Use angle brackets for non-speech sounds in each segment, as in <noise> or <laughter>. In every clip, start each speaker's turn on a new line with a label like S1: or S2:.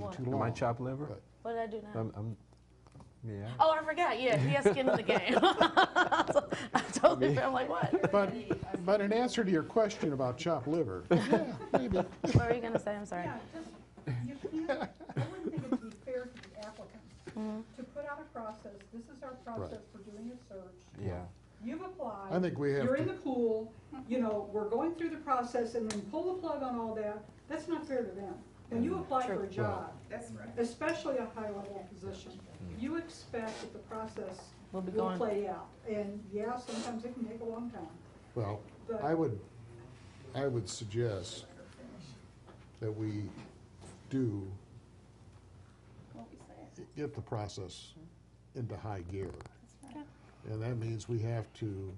S1: one?
S2: too
S3: Am
S1: <laughs>
S3: I
S2: long.
S3: chopped liver?
S2: Good.
S1: What did I do now?
S3: I'm, I'm, yeah.
S1: Oh, I forgot. Yeah, he has skin in the game. So, I totally. I'm like,
S3: <laughs>
S1: what?
S2: But, but in answer to your question about chopped
S3: <laughs>
S2: liver, yeah, maybe.
S1: What were you gonna say? I'm sorry.
S4: Yeah, just, you can't, I wouldn't think it'd be fair to the
S1: Mm-hmm.
S4: applicant to put out a process, this is our process for doing a search.
S3: Yeah.
S4: You've applied.
S2: I think we have
S4: You're in
S2: to-
S4: the pool, you know, we're going through the process and then pull the plug on all that, that's not fair to them. When
S2: Mm-hmm.
S4: you apply for a job,
S5: That's right.
S4: especially a high-level position, you expect that the process
S1: Will be
S4: will
S1: going.
S4: play out. And yeah, sometimes it can take a long time,
S2: Well,
S4: But-
S2: I would, I would suggest that we do get the process into high gear. And that means we have to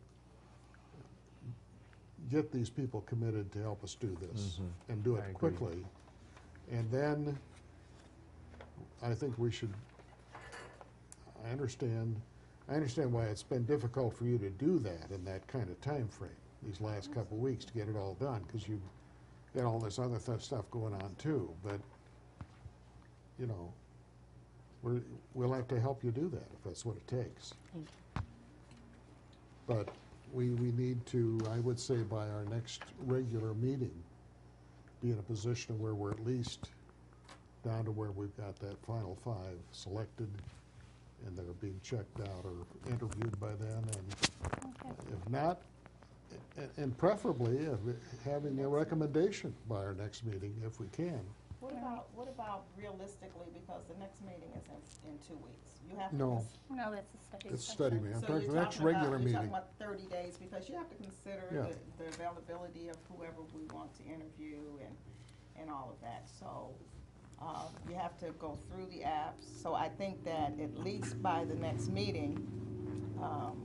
S2: get these people committed to help us do this and do
S3: Mm-hmm. I
S2: it
S3: agree.
S2: quickly. And then I think we should, I understand, I understand why it's been difficult for you to do that in that kind of time frame. these last couple of weeks to get it all done, because you've got all this other th- stuff going on too, but, you know, we're, we'll have to help you do that if that's what it takes.
S1: Thank
S2: But we, we need to, I would say by our next regular meeting, be in a position where we're at least down to where we've got that final five selected and they're being checked out or interviewed by then. And if not, a- and preferably uh, having a recommendation by our next meeting if we can.
S5: What about, what about realistically, because the next meeting is in, in two weeks? You have to.
S2: No.
S5: cons-
S6: No, that's a study.
S2: It's study
S6: session.
S2: meeting. I'm
S5: so
S2: talking,
S5: you're
S2: the next
S5: talking about-
S2: regular
S5: You're talking
S2: meeting.
S5: about thirty days, because you have to consider
S2: Yeah.
S5: the, the availability of whoever we want to interview and, and all of that, so, uh, you have to go through the apps, so I think that at least by the next meeting, um,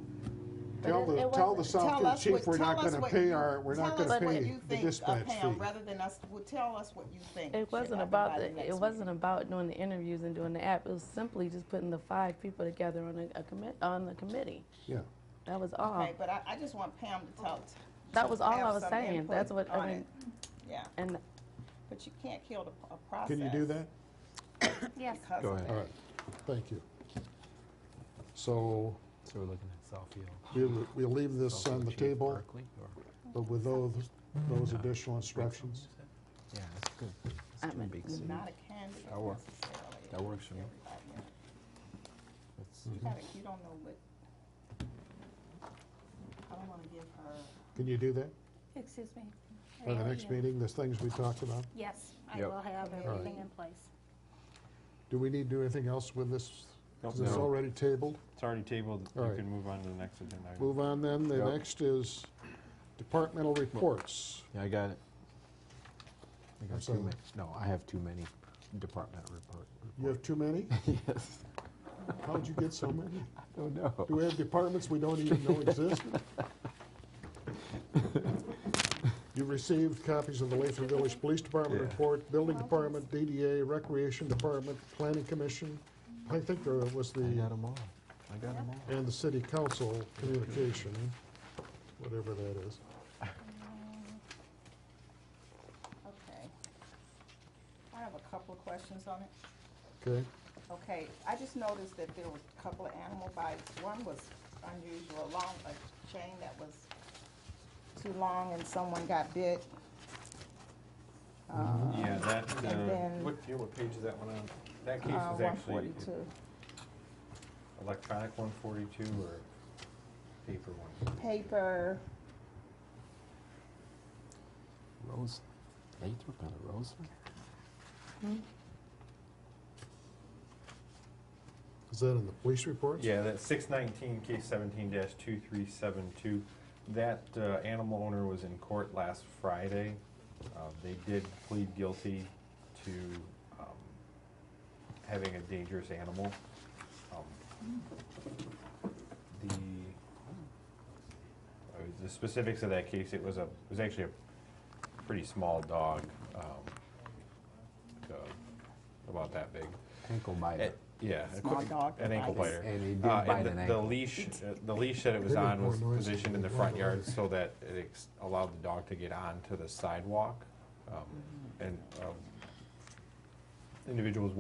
S2: Tell
S1: it-
S2: the,
S1: it
S2: tell the
S1: wasn't-
S2: South
S5: Tell
S2: Kid
S5: us
S2: chief
S5: what-
S2: we're
S5: tell
S2: not
S5: us
S2: gonna
S5: what
S2: pay
S5: you-
S2: our, we're not
S5: tell us
S2: gonna
S5: what
S2: pay
S5: you
S2: the
S5: think, uh,
S2: dispatch fee.
S5: Pam, Rather than us, well, tell us what you think.
S1: It wasn't about the, it wasn't about doing the interviews and doing the app. It was simply just putting the five people together on a, a commit, on the committee.
S2: Yeah,
S1: That was all.
S5: Okay, but I, I just want Pam to tell.
S1: Oh. That was all I
S5: have
S1: was
S5: some
S1: saying.
S5: input
S1: That's what I
S5: on it.
S1: mean.
S5: Yeah,
S1: And
S5: but you can't kill the, p- a process.
S2: can you do that?
S6: Yes.
S5: because
S3: Go
S5: of
S3: ahead.
S2: All right, thank you. So
S3: So we're looking at Southfield.
S2: we'll, we'll leave this
S3: Southfield
S2: on the
S3: Chief
S2: table,
S3: Berkeley, or-
S2: but with those, those additional instructions.
S3: Yeah, that's good.
S1: I
S3: It's two
S1: meant-
S3: big
S5: It's
S3: cities.
S5: not a candidate
S3: That works.
S5: necessarily.
S3: That works for me.
S5: Everybody, yeah.
S3: That's-
S5: You gotta, you don't know what, I don't wanna give her,
S2: Can you do that
S6: Excuse me.
S2: by the
S6: Mayor,
S2: next
S6: you-
S2: meeting, the things we talked about?
S6: Yes, I
S3: Yep.
S6: will have
S5: Alright.
S6: everything in place.
S2: Do we need to do anything else with this? Is
S7: Nope.
S2: this
S7: No.
S2: already tabled?
S7: It's already tabled,
S2: All
S7: you
S2: right.
S7: can move on to the next agenda item.
S2: Move on then, the
S3: Yep.
S2: next is departmental reports.
S3: Yeah, I got it. I got too
S2: sorry.
S3: many, no, I have too many department report.
S2: You have too many? <laughs>
S3: Yes,
S2: How'd you get so many?
S3: I don't know.
S2: Do we have departments we don't even know <laughs> exist? You received copies of the Latham Village Police Department
S3: Yeah.
S2: report, Building Department, DDA, Recreation Department, Planning Commission, I think there was
S3: I
S2: the,
S3: got them all. I got them all.
S2: and the City Council Communication, whatever that is.
S5: okay. I have a couple of questions on it.
S2: Okay,
S5: Okay, I just noticed that there was a couple of animal bites. One was unusual, long, a chain that was too long and someone got bit. Uh,
S7: Yeah, that, uh,
S5: And then-
S7: what, yeah, what page is that one on? That case
S5: uh,
S7: is
S5: one
S7: actually
S5: forty-two,
S7: electronic one forty-two or paper one?
S5: paper,
S3: Rose, Lathrop and a Roseland?
S2: is that in the police reports?
S7: Yeah, that six nineteen, case seventeen dash two three seven two. That, uh, animal owner was in court last Friday. Uh, they did plead guilty to, um, having a dangerous animal. Um, The, uh, the specifics of that case, it was a, it was actually a pretty small dog, um, like, uh, about that big.
S3: Ankle
S7: Uh,
S3: biter.
S7: Yeah. a
S5: Small
S7: quick-
S5: dog
S7: An ankle
S5: bites.
S7: biter.
S3: And he did
S7: Uh,
S3: bite
S7: the-
S3: an
S7: The
S3: ankle.
S7: leash, uh, the leash that it was
S2: They make
S7: on
S2: more
S7: was
S2: noise than
S7: positioned in the
S2: they
S7: front
S2: want.
S7: yard so that it ex- allowed the dog to get onto the sidewalk. um, And um, individuals